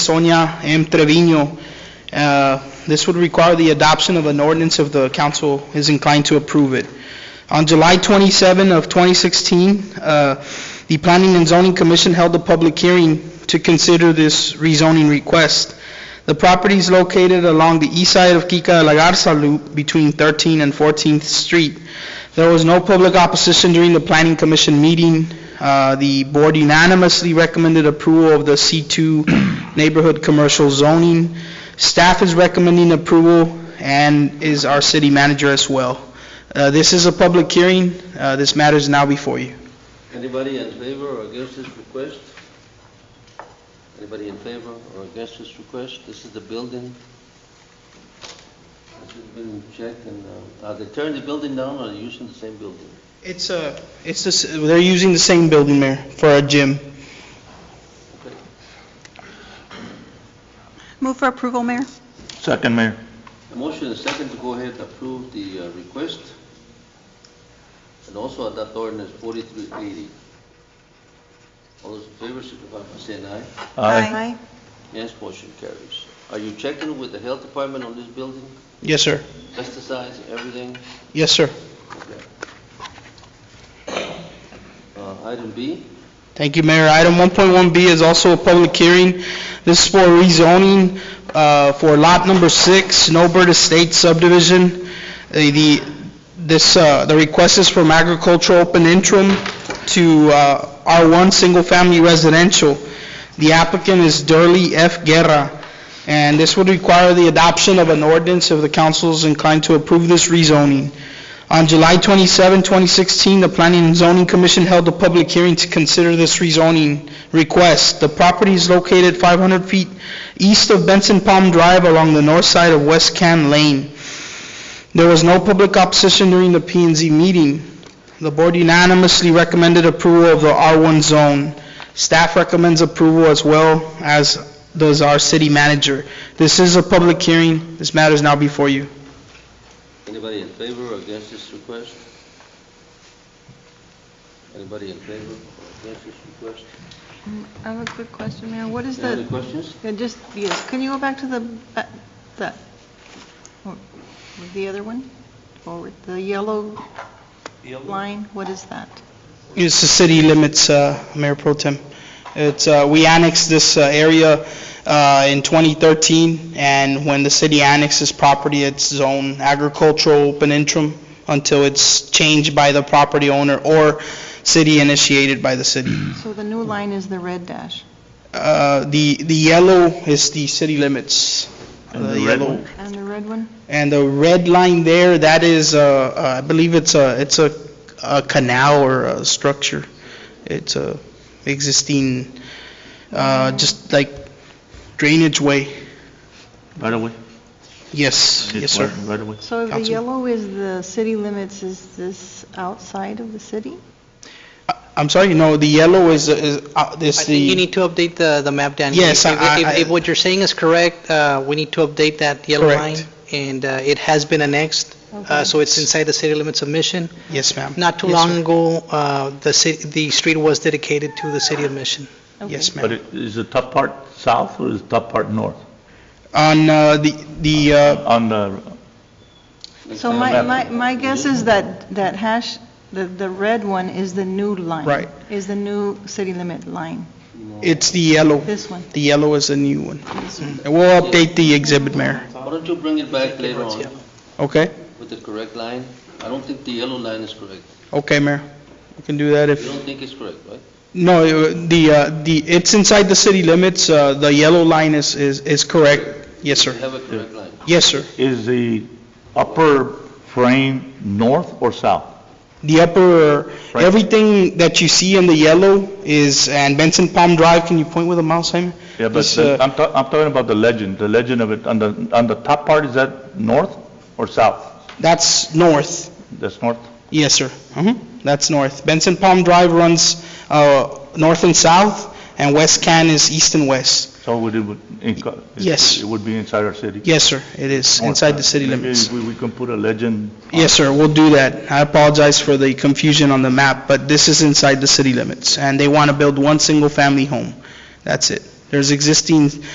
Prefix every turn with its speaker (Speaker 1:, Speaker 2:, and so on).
Speaker 1: Sonia M. Trevino. Uh, This would require the adoption of an ordinance if the council is inclined to approve it. On July 27 of 2016, uh, the Planning and Zoning Commission held a public hearing to consider this rezoning request. The property is located along the east side of Kika de la Garza Loop between 13th and 14th Street. There was no public opposition during the Planning Commission meeting. Uh, The board unanimously recommended approval of the C2 neighborhood commercial zoning. Staff is recommending approval and is our city manager as well. Uh, This is a public hearing. Uh, This matter is now before you.
Speaker 2: Anybody in favor or against this request? Anybody in favor or against this request? This is the building. This has been checked and, uh, are they tearing the building down or are they using the same building?
Speaker 1: It's a, it's, the s- they're using the same building, Mayor, for a gym.
Speaker 2: Okay.
Speaker 3: Move for approval, Mayor.
Speaker 4: Second, Mayor.
Speaker 2: A motion and a second to go ahead and approve the uh, request and also adopt ordinance 4380. All those in favor signify by saying aye. Yes, motion carries. Are you checking with the health department on this building?
Speaker 1: Yes, sir.
Speaker 2: Pesticides, everything?
Speaker 1: Yes, sir.
Speaker 2: Uh, Item B,
Speaker 1: Thank you, Mayor. Item 1.1B is also a public hearing. This is for rezoning uh, for lot number six, Snowbird Estate subdivision. Uh, The, this, uh, the request is from agricultural open interim to uh, R1 Single Family Residential. The applicant is Durley F. Guerra, and this would require the adoption of an ordinance if the council is inclined to approve this rezoning. On July 27, 2016, the Planning and Zoning Commission held a public hearing to consider this rezoning request. The property is located 500 feet east of Benson Palm Drive along the north side of West Can Lane. There was no public opposition during the p and Z meeting. The board unanimously recommended approval of the R1 zone. Staff recommends approval as well as does our city manager. This is a public hearing. This matter is now before you.
Speaker 2: anybody in favor or against this request? Anybody in favor or against this request?
Speaker 3: I have a quick question, Mayor. What is
Speaker 2: Any other
Speaker 3: the,
Speaker 2: questions?
Speaker 3: yeah, just, yes, can you go back to the, ba- the, or- the other one? Forward, the yellow line, what is that?
Speaker 1: It's the city limits, uh, Mayor Pro Tem. It's, uh, we annexed this uh, area uh, in 2013, and when the city annexes property, it's zone agricultural open interim until it's changed by the property owner or city initiated by the city.
Speaker 3: So the new line is the red dash.
Speaker 1: Uh, The the yellow is the city limits. Uh,
Speaker 4: And the red
Speaker 1: yellow-
Speaker 4: one?
Speaker 3: And the red one?
Speaker 1: And the red line there, that is, uh, uh, I believe it's a, it's a a canal or a structure. It's a existing, uh, just like drainage way.
Speaker 4: Right away.
Speaker 1: Yes, yes, sir.
Speaker 4: Right away.
Speaker 3: So the
Speaker 1: Councilman.
Speaker 3: yellow is the city limits, is this outside of the city?
Speaker 1: I- I'm sorry, no, the yellow is, is uh,
Speaker 5: I
Speaker 1: is
Speaker 5: think you
Speaker 1: the,
Speaker 5: need to update the, the map, Danny.
Speaker 1: Yes,
Speaker 5: If-
Speaker 1: I-
Speaker 5: if-
Speaker 1: I-
Speaker 5: If what you're saying is correct, uh, we need to update that yellow
Speaker 1: Correct.
Speaker 5: line. And uh, it has been annexed, uh,
Speaker 3: Okay.
Speaker 5: so it's inside the city limits of Mission.
Speaker 1: yes, ma'am.
Speaker 5: Not too
Speaker 1: Yes, sir.
Speaker 5: long ago, uh, the city, the street was dedicated to the city of Mission.
Speaker 3: Okay.
Speaker 1: Yes,
Speaker 4: But
Speaker 1: ma'am.
Speaker 4: it- is the top part south or is the top part north?
Speaker 1: On uh, the, the, uh,
Speaker 4: On the,
Speaker 3: So my, my, my guess is that, that hash, the, the red one is the new line.
Speaker 1: Right.
Speaker 3: Is the new city limit line,
Speaker 1: it's the yellow.
Speaker 3: this one.
Speaker 1: The yellow is the new one. And We'll update the exhibit, Mayor,
Speaker 2: Why don't you bring it back later on
Speaker 5: Yeah.
Speaker 1: okay?
Speaker 2: with the correct line? I don't think the yellow line is correct.
Speaker 1: Okay, Mayor. We can do that if...
Speaker 2: You don't think it's correct, right?
Speaker 1: No, uh, the, uh, the, it's inside the city limits, uh, the yellow line is, is is correct. Yes,
Speaker 2: You
Speaker 1: sir.
Speaker 2: have a correct line.
Speaker 1: Yes, sir.
Speaker 4: is the upper frame north or south?
Speaker 1: The upper,
Speaker 4: Right.
Speaker 1: everything that you see in the yellow is, and Benson Palm Drive, can you point with a mouse, Jaime?
Speaker 4: Yeah, but
Speaker 1: This,
Speaker 4: the-
Speaker 1: uh,
Speaker 4: I'm, ta- I'm talking about the legend, the legend of it. On the, on the top part, is that north or south?
Speaker 1: That's north.
Speaker 4: That's north?
Speaker 1: Yes, sir. Mhm. That's north. Benson Palm Drive runs uh, north and south, and West Can is east and west.
Speaker 4: So would it, would inco- it-
Speaker 1: Yes.
Speaker 4: It would be inside our city?
Speaker 1: Yes, sir, it is,
Speaker 4: North
Speaker 1: inside
Speaker 4: side.
Speaker 1: the city
Speaker 4: Maybe
Speaker 1: limits.
Speaker 4: we- we can put a legend.
Speaker 1: Yes, sir, we'll do that. I apologize for the confusion on the map, but this is inside the city limits, and they want to build one single-family home. That's it. There's existing